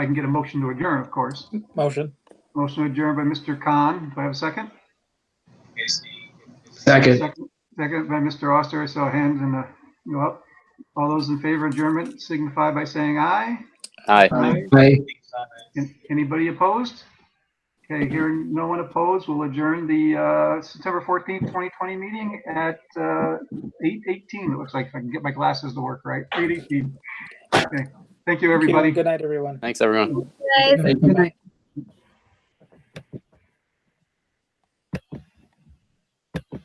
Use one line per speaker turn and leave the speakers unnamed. I can get a motion to adjourn, of course.
Motion.
Motion adjourned by Mr. Khan. Do I have a second?
Second.
Second second by Mr. Oster. I saw hands and uh, you up. All those in favor of adjournment signify by saying aye.
Aye.
Aye.
An- Anybody opposed? Okay, hearing no one opposed, we'll adjourn the uh, September 14th, 2020 meeting at uh, 8:18. It looks like if I can get my glasses to work right. 8:18. Okay. Thank you, everybody.
Good night, everyone.
Thanks, everyone.
guys.
Thank you.